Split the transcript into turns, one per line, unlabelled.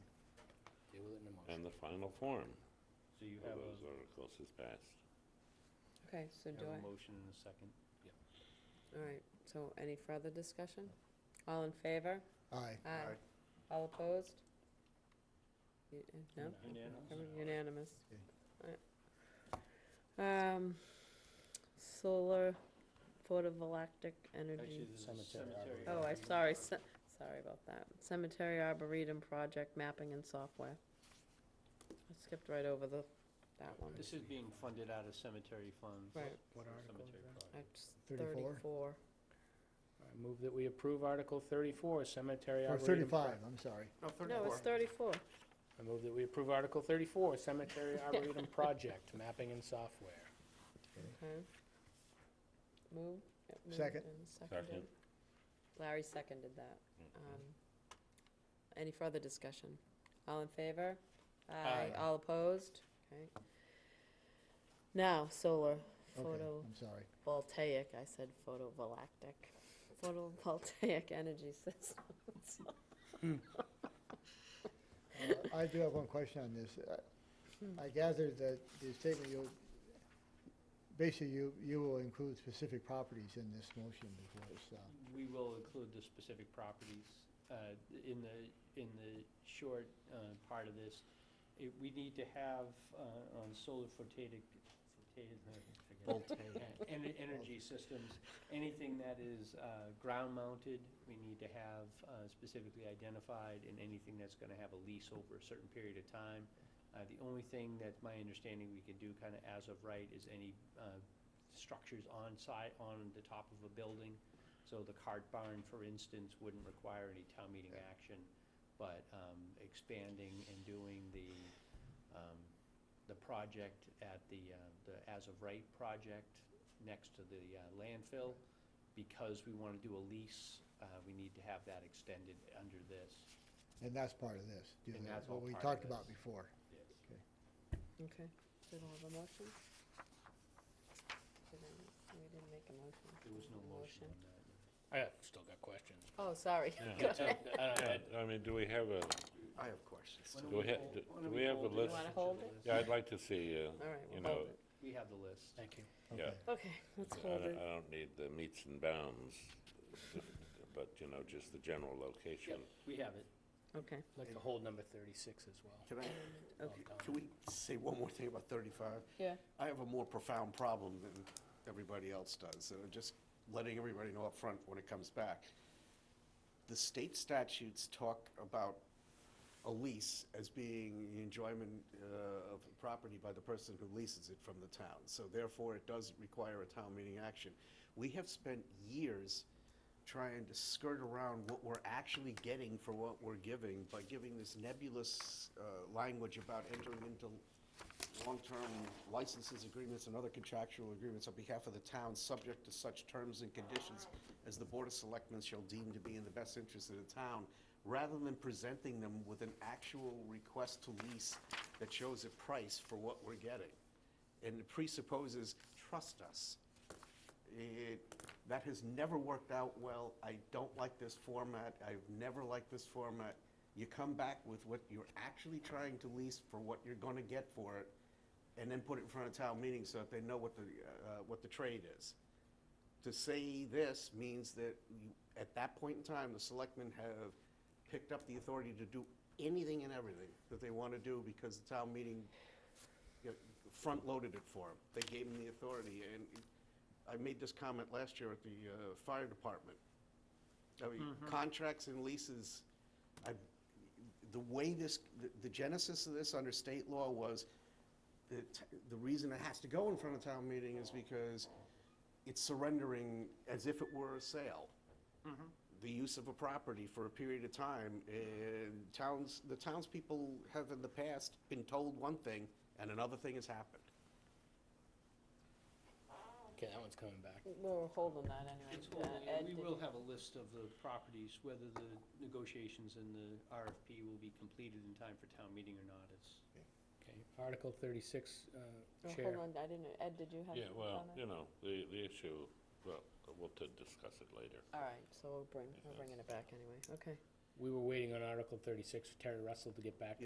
and the final form
So you
of
have
those
a,
articles is passed.
Okay, so
you
do
have a
I,
motion and a second?
all right, so any further discussion? All in favor?
Aye.
Aye. All opposed? You- uh, No?
Unanimous?
Every- Unanimous.
Okay.
Alright. Um, solar photovoltaic
Actually,
energy.
there's a
Cemetery
cemetery.
Oh, I'm
arboretum.
sorry, ce- sorry about that. Cemetery Arboretum Project Mapping and Software. I skipped right over the, that one.
This is being funded out of cemetery funds.
Right,
What
for
article is
cemetery
that?
projects.
that's
34?
thirty-four.
I move that we approve Article thirty-four, Cemetery
Or
Arboretum.
thirty-five,
Pro-
I'm sorry.
No, it's thirty-four.
I move that we approve Article thirty-four, Cemetery Arboretum Project, Mapping and Software.
Okay. Move. yeah, moved
Second.
and seconded.
Second.
Larry seconded that. Um, Any further discussion? All in favor?
Aye.
All opposed? Okay. Now, solar
Okay,
photovoltaic,
I'm sorry.
I said photovoltaic, photovoltaic energy systems.
Uh, I do have one question on this. Uh, I gathered that the statement you, basically you, you will include specific properties in this motion before it's, uh,
We will include the specific properties uh, in the, in the short uh, part of this. it- We need to have uh, on solar photovoltaic, voltaic, en- energy systems, anything that is ground-mounted, we need to have uh, specifically identified, and anything that's going to have a lease over a certain period of time. Uh, The only thing that my understanding we can do kind of as of right is any uh, structures on site, on the top of a building. So the cart barn, for instance, wouldn't require any town meeting action, but um, expanding and doing the, um, the project at the, uh, the as-of-right project next to the uh, landfill, because we want to do a lease, uh, we need to have that extended under this.
and that's part of this. do
And
that,
that's all
What we
part of
talked about
this.
before.
Okay, did I have a motion? Did I- We didn't make a motion.
There was no motion on that.
I have- still got questions.
Oh, sorry.
Yeah.
I don't-
Yeah,
I-
I mean, do we have a,
I have questions.
Why don't
Do we ha-
hold-
do-
why
do
don't
we have a
hold it?
list?
Wanna hold it?
yeah, I'd like to see, uh,
All right,
You
we'll
know,
hold it.
We have the list.
Thank you.
Yeah.
Okay.
Okay, let's
I
hold
don't,
it.
I don't need the meets and bounds, but, you know, just the general location.
We have it.
Okay,
I'd Like to hold number thirty-six as well.
Can I,
okay.
can we say one more thing about 35?
Yeah.
I have a more profound problem than everybody else does, and I'm just letting everybody know up front when it comes back. The state statutes talk about a lease as being the enjoyment uh, of the property by the person who leases it from the town. So therefore, it does require a town meeting action. We have spent years trying to skirt around what we're actually getting for what we're giving by giving this nebulous uh, language about entering into long-term licenses, agreements, and other contractual agreements on behalf of the town, subject to such terms and conditions as the Board of Selectmen shall deem to be in the best interest of the town, rather than presenting them with an actual request to lease that shows a price for what we're getting. And it presupposes, trust us. It, that has never worked out well. I don't like this format. I've never liked this format. You come back with what you're actually trying to lease for what you're gonna get for it, and then put it in front of town meeting so that they know what the, uh, what the trade is. To say this means that you- at that point in time, the selectmen have picked up the authority to do anything and everything that they wanna do because the town meeting you know, front-loaded it for them. They gave them the authority, and I made this comment last year at the uh, fire department. I mean, contracts and leases, I, the way this, the- the genesis of this under state law was, the, t- the reason it has to go in front of town meeting is because it's surrendering as if it were a sale the use of a property for a period of time, and towns, the townspeople have in the past been told one thing, and another thing has happened.
Okay, that one's coming back.
We're holding that anyway.
It's
Uh,
only-
Ed,
We
did-
will have a list of the properties, whether the negotiations and the RFP will be completed in time for town meeting or not. It's,
Okay, Article thirty-six,
oh,
uh, Chair.
Hold on, I didn't, Ed, did you have
Yeah,
a
well,
comment?
you know, the, the issue, well, we'll t- discuss it later.
All right, so we'll bring, we're bringing it back anyway, okay.
We were waiting on Article thirty-six for Terry Russell to get back